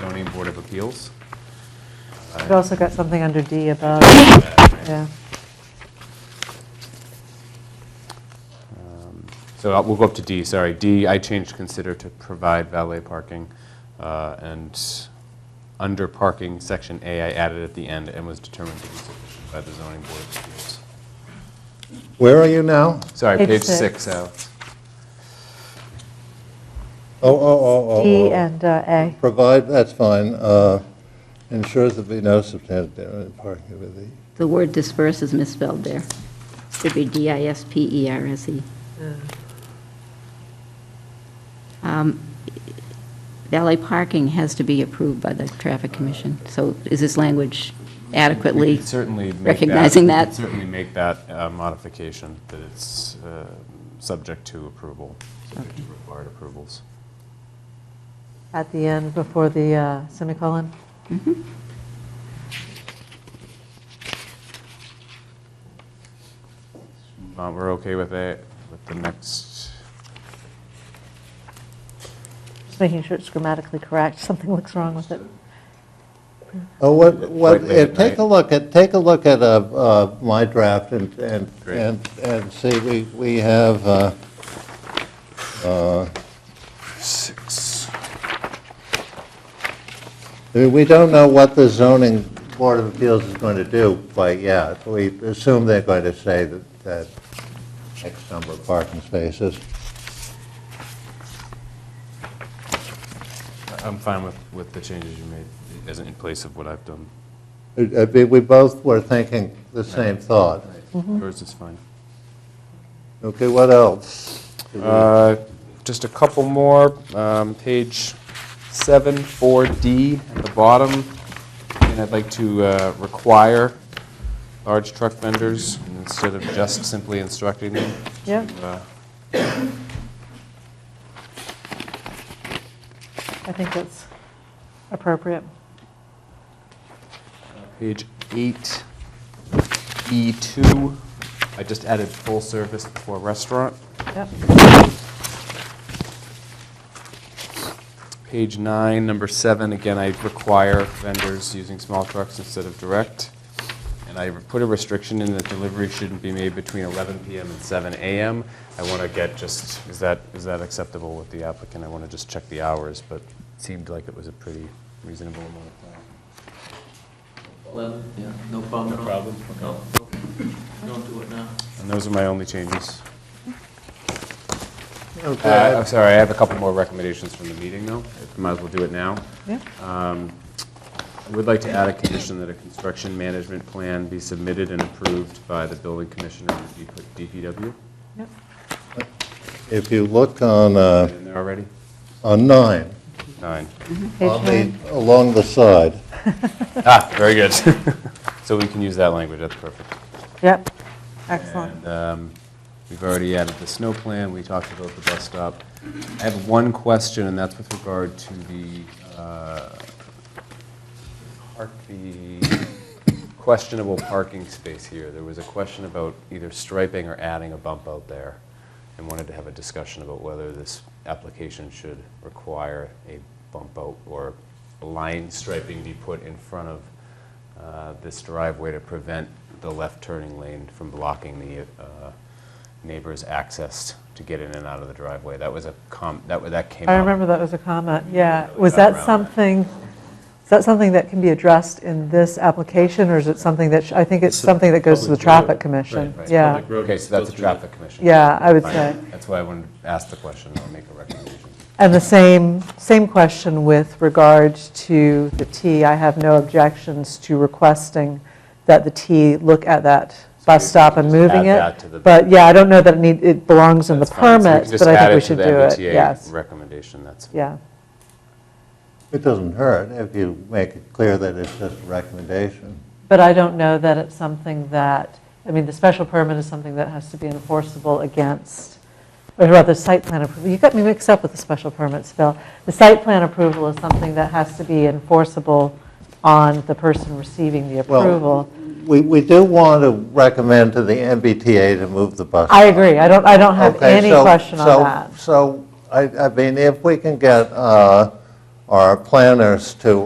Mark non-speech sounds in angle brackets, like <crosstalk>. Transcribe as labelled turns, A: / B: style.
A: zoning board of appeals.
B: We've also got something under D above, yeah.
A: Um, So uh, we'll go up to D, sorry. D, I changed consider to provide valet parking. uh, And under parking, section A, I added at the end and was determined to be sufficient by the zoning board of appeals.
C: Where are you now?
A: Sorry,
B: Page
A: page
B: six.
A: six, Alex.
C: Oh, oh, oh, oh, oh.
B: D and uh, A.
C: Provide, that's fine, uh, ensures that be no substantial parking with the,
D: The word disperse is misspelled there. Should be E D-I-S-P-E-R-S-E. Um, Valet parking has to be approved by the Traffic Commission, so is this language
A: We
D: adequately?
A: could certainly make that.
D: recognizing
A: we
D: that.
A: could Certainly make that uh, modification, that it's uh, subject to approval, subject to required approvals.
B: At the end, before the uh, semicolon?
A: Uh, We're okay with it, with the next,
B: Just making sure it's grammatically correct, <laughs> something looks wrong with it.
C: oh, what, what,
A: Quite late
C: eh,
A: at
C: take a
A: night.
C: look at, take a look at uh, uh, my draft and, and,
A: Great.
C: and and see, we, we have, uh, uh,
A: six.
C: I mean, we don't know what the zoning board of appeals is going to do quite yet. We assume they're going to say that, that X number of parking spaces.
A: I'm fine with, with the changes you made, as in place of what I've done.
C: It- it'd be- Uh, We both were thinking the same thought.
A: Yours is fine.
C: Okay, what else?
A: Uh, Just a couple more, um, page seven, four D at the bottom. And I'd like to uh, require large truck vendors, instead of just simply instructing them.
B: Yeah.
A: to, uh,
B: I think that's appropriate.
A: Page eight, E two, I just added full service before restaurant.
B: Yep,
A: Page nine, number seven, again, I require vendors using small trucks instead of direct. And I put a restriction in that delivery shouldn't be made between 11 PM and 7 AM. I want to get just, is that, is that acceptable with the applicant? I want to just check the hours, but it seemed like it was a pretty reasonable amount of time.
E: 11, yeah, no problem at all. No problem? No, don't do it now.
A: And those are my only changes. Uh,
C: Okay.
A: I'm sorry, I have a couple more recommendations from the meeting, though. Might as well do it now.
B: yeah.
A: I would like to add a condition that a construction management plan be submitted and approved by the building commissioner and DP- DPW.
B: Yep.
C: If you look on, uh,
A: In there already?
C: on nine,
A: Nine.
B: Page
C: on the,
B: nine,
C: along the side,
A: Ah, very good. <laughs> So we can use that language, that's perfect.
B: yep, excellent.
A: And um, we've already added the snow plan, we talked about the bus stop. I have one question, and that's with regard to the, uh, park, the <coughs> questionable parking space here. There was a question about either striping or adding a bump out there, and wanted to have a discussion about whether this application should require a bump out or line striping be put in front of uh, this driveway to prevent the left turning lane from blocking the uh, neighbor's access to get in and out of the driveway. That was a com, that wa- that came up.
B: I remember that was a comment, yeah.
A: Really
B: Was
A: got around
B: that
A: that.
B: something, is that something that can be addressed in this application, or is it something that, sh- I think it's something that goes to the Traffic Commission?
A: Right.
B: Yeah,
E: Public road
A: Okay, so that's a
E: goes through the-
A: traffic commission.
B: yeah, I would
A: Fine.
B: say.
A: That's why I wanted to ask the question, I'll make a recommendation.
B: And the same, same question with regard to the T. I have no objections to requesting that the T look at that bus stop and
A: just
B: moving
A: add that to the-
B: it. But yeah, I don't know that it need, it belongs in the
A: That's fine. So we can
B: permit,
A: just
B: but I
A: add
B: think we
A: to
B: should
A: the
B: do it,
A: MBTA
B: yes.
A: Recommendation, that's.
B: Yeah,
C: it doesn't hurt if you make it clear that it's just a recommendation.
B: but I don't know that it's something that, I mean, the special permit is something that has to be enforceable against, or rather, site plan approval. You got me mixed up with the special permits, Phil. The site plan approval is something that has to be enforceable on the person receiving the
C: Well,
B: approval.
C: We, we do want to recommend to the MBTA to move the bus.
B: I agree, I don't, I don't have
C: Okay,
B: any
C: so-
B: question on
C: so-
B: that.
C: So, I, I mean, if we can get uh, or our planners to